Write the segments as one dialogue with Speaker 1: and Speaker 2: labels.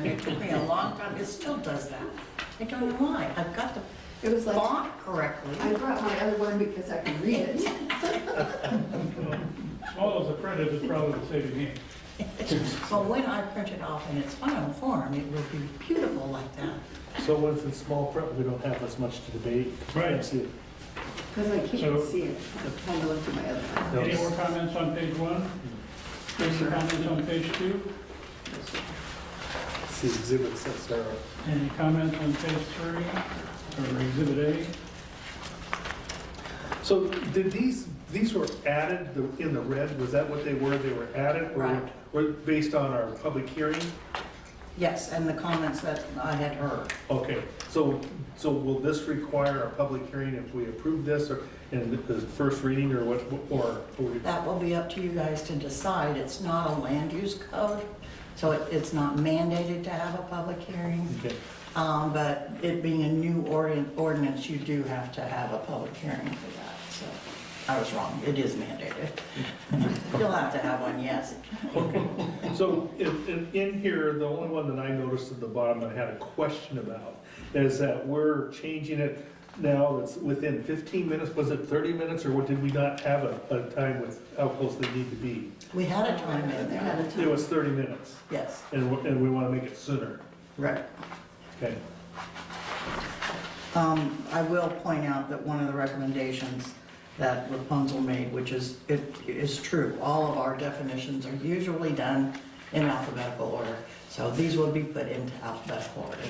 Speaker 1: it took me a long time, it still does that. I don't know why, I've got the
Speaker 2: It was like,
Speaker 1: font correctly.
Speaker 2: I brought my other one because I can read it.
Speaker 3: Swallows the credit is probably the saving game.
Speaker 1: But when I print it off in its final form, it will be beautiful like that.
Speaker 4: So once it's small print, we don't have as much to debate.
Speaker 3: Right.
Speaker 4: See it.
Speaker 2: Because I can't
Speaker 3: So-
Speaker 2: see it. I'm trying to look through my other one.
Speaker 3: Any more comments on page one? Any comments on page two?
Speaker 4: See exhibit six there.
Speaker 3: Any comments on page three, or exhibit
Speaker 4: So did these, these were added the- in the red, was that what they were, they were added? or
Speaker 1: Right.
Speaker 4: Were based on our public hearing?
Speaker 1: Yes, and the comments that I had heard.
Speaker 4: Okay, so, so will this require a public hearing if we approve this or in the first reading or what, or? or we-
Speaker 1: That will be up to you guys to decide. It's not a land use code, so it- it's not mandated to have a public hearing.
Speaker 4: Okay.
Speaker 1: Um, But it being a new ordin- ordinance, you do have to have a public hearing for that, so. I was wrong, it is mandated. You'll have to have one, yes.
Speaker 4: So in, in, in here, the only one that I noticed at the bottom I had a question about is that we're changing it now, it's within fifteen minutes, was it thirty minutes, or what, did we not have a, a time with how close they need to be?
Speaker 1: We had a time in
Speaker 2: I had
Speaker 1: there,
Speaker 2: a
Speaker 4: It
Speaker 2: time.
Speaker 4: was thirty minutes,
Speaker 1: yes,
Speaker 4: and, we- and we wanna make it sooner,
Speaker 1: right.
Speaker 4: okay?
Speaker 1: Um, I will point out that one of the recommendations that Rapunzel made, which is, it is true, all of our definitions are usually done in alphabetical order. So these will be put into alphabetical order.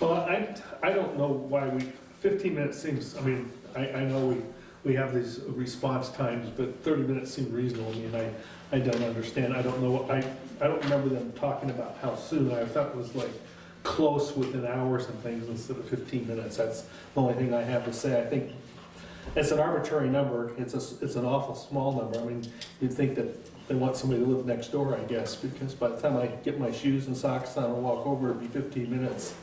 Speaker 4: Well, I, I don't know why we, 15 minutes seems, I mean, I, I know we, we have these response times, but 30 minutes seem reasonable, I mean, I, I don't understand, I don't know, I, I don't remember them talking about how soon, I thought it was like close within hours and things instead of 15 minutes, that's the only thing I have to say, I think it's an arbitrary number, it's a, it's an awful small number, I mean, you'd think that they want somebody to live next door, I guess, because by the time I get my shoes and socks on and walk over, it'd be 15 minutes.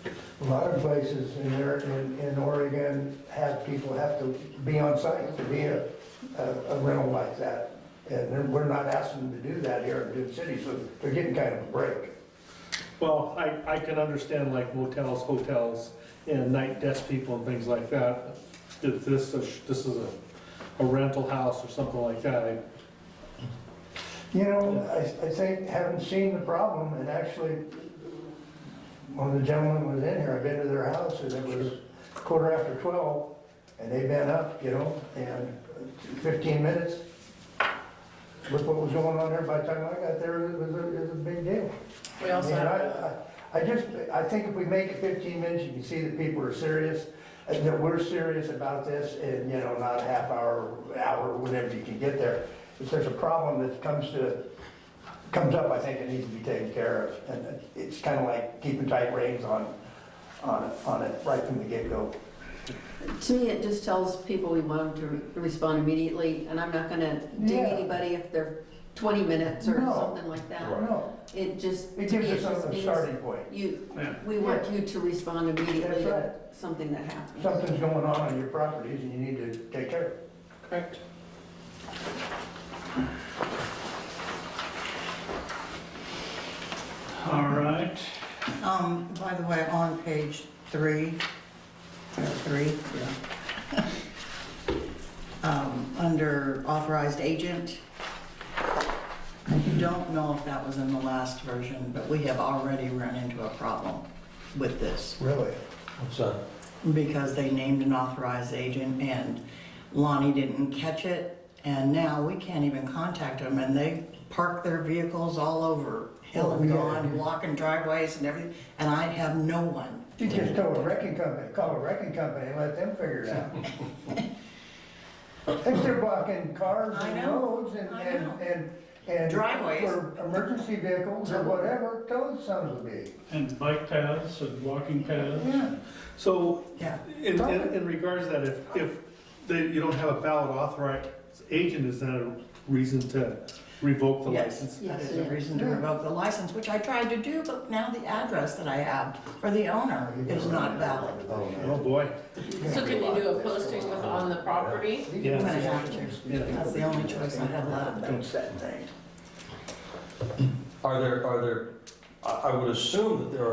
Speaker 5: A lot of places in there, in, in Oregon, have, people have to be on site to be a, a a rental like that. And then we're not asking them to do that here in Dune City, so they're getting kind of a break.
Speaker 4: Well, I, I can understand like motels, hotels, and night desk people and things like that. If this, is- this is a, a rental house or something like that, I-
Speaker 5: You know, I, I think, haven't seen the problem, and actually, one of the gentlemen was in here, I've been to their house, and it was quarter after twelve, and they've been up, you know, and fifteen minutes. Look what was going on there, by the time I got there, it was, a- it was a big deal.
Speaker 6: We also
Speaker 5: I mean,
Speaker 6: have-
Speaker 5: I- I I just, I think if we make it 15 minutes, you can see that people are serious, and that we're serious about this, and, you know, not a half hour, hour, whenever you can get there. If there's a problem that comes to, comes up, I think it needs to be taken care of. And it's kind of like keeping tight reins on, on, on it right from the get-go.
Speaker 2: To me, it just tells people we want them to re- respond immediately, and I'm not gonna ding
Speaker 5: Yeah.
Speaker 2: anybody if they're 20 minutes or
Speaker 5: No.
Speaker 2: something like that.
Speaker 5: No,
Speaker 2: It just,
Speaker 5: it
Speaker 2: to me,
Speaker 5: gives
Speaker 2: it
Speaker 5: us
Speaker 2: just
Speaker 5: some
Speaker 2: means
Speaker 5: starting point.
Speaker 2: you,
Speaker 3: A?
Speaker 2: we want you to respond immediately
Speaker 5: That's
Speaker 2: to
Speaker 5: right.
Speaker 2: something that happens.
Speaker 5: Something's going on on your properties, and you need to take care of it.
Speaker 2: Correct.
Speaker 3: All right,
Speaker 1: Um, by the way, on page three, or three, yeah. Um, under authorized agent, I don't know if that was in the last version, but we have already run into a problem with this.
Speaker 5: Really?
Speaker 1: because they named an authorized agent and Lonnie didn't catch it. And now we can't even contact them and they park their vehicles all over hill and
Speaker 5: Oh, yeah.
Speaker 1: gone, blocking driveways and everything. And I have no one.
Speaker 5: You just tell a wrecking company, call a wrecking company and let them figure it out. If they're blocking cars
Speaker 1: I
Speaker 5: and
Speaker 1: know,
Speaker 5: roads and,
Speaker 1: I
Speaker 5: and,
Speaker 1: know.
Speaker 5: and. and
Speaker 1: Driveways.
Speaker 5: For emergency vehicles or whatever, tell them something to be.
Speaker 3: and bike paths and walking paths.
Speaker 5: Yeah.
Speaker 4: so
Speaker 1: Yeah.
Speaker 4: in, in in regards to that, if, if they- you don't have a valid authorized agent, is that a reason to revoke the
Speaker 1: Yes.
Speaker 4: license?
Speaker 1: That
Speaker 2: Yes,
Speaker 1: is a
Speaker 2: yeah.
Speaker 1: reason to
Speaker 5: Yeah.
Speaker 1: revoke the license, which I tried to do, but now the address that I have for the owner is not valid.
Speaker 4: Oh, boy,
Speaker 6: So can you do a posting with on the property?
Speaker 1: I'm gonna
Speaker 4: yeah,
Speaker 1: have to.
Speaker 4: yeah.
Speaker 1: That's the only choice I have left.
Speaker 7: Are there, are there, I I would assume that there are.